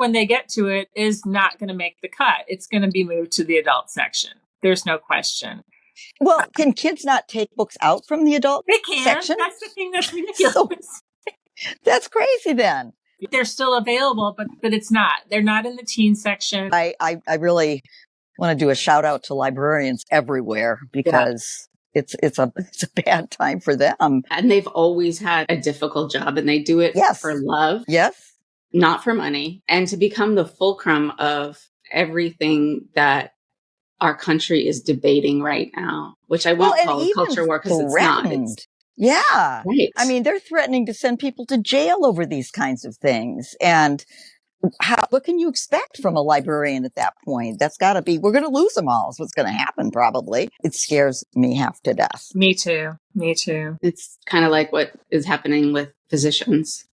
when they get to it is not going to make the cut. It's going to be moved to the adult section. There's no question. Well, can kids not take books out from the adult? They can. Section? That's the thing that's ridiculous. That's crazy then. They're still available, but but it's not. They're not in the teen section. I, I, I really want to do a shout out to librarians everywhere because it's it's a it's a bad time for them. And they've always had a difficult job and they do it Yes. for love, Yes. not for money, and to become the fulcrum of everything that our country is debating right now, which I won't call culture war because it's not. It's, threatened. yeah. right. I mean, they're threatening to send people to jail over these kinds of things. And how, what can you expect from a librarian at that point? That's got to be, we're going to lose them all, is what's going to happen, probably. It scares me half to death. Me too. Me too. it's kind of like what is happening with physicians.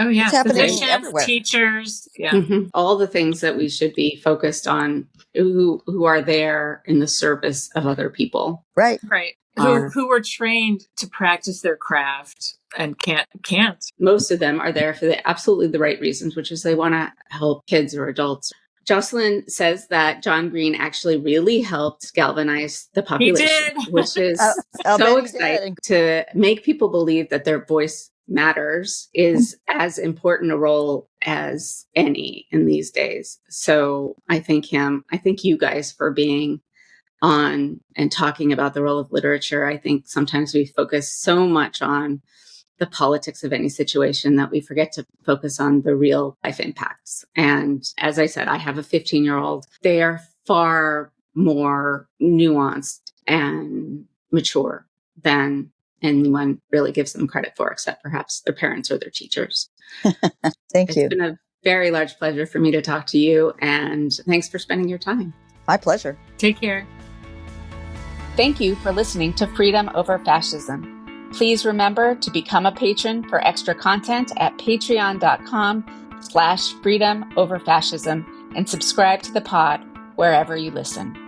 Oh yeah. It's happening Physicians, everywhere. teachers. Yeah. Mhm. All the things that we should be focused on who who are there in the service of other people. Right. Right. Who, Are- who were trained to practice their craft and can't can't. Most of them are there for the absolutely the right reasons, which is they want to help kids or adults. Jocelyn says that John Green actually really helped galvanize the population, did. which is Oh, I'll bet so he did. exciting to make people believe that their voice matters is as important a role as any in these days. So I thank him. I thank you guys for being on and talking about the role of literature. I think sometimes we focus so much on the politics of any situation that we forget to focus on the real life impacts. And as I said, I have a 15 year old. They are far more nuanced and mature than anyone really gives them credit for, except perhaps their parents or their teachers. Thank It's you. been a very large pleasure for me to talk to you. And thanks for spending your time. My pleasure. Take care. Thank you for listening to Freedom Over Fascism. Please remember to become a patron for extra content at patreon.com slash freedom over fascism and subscribe to the pod wherever you listen.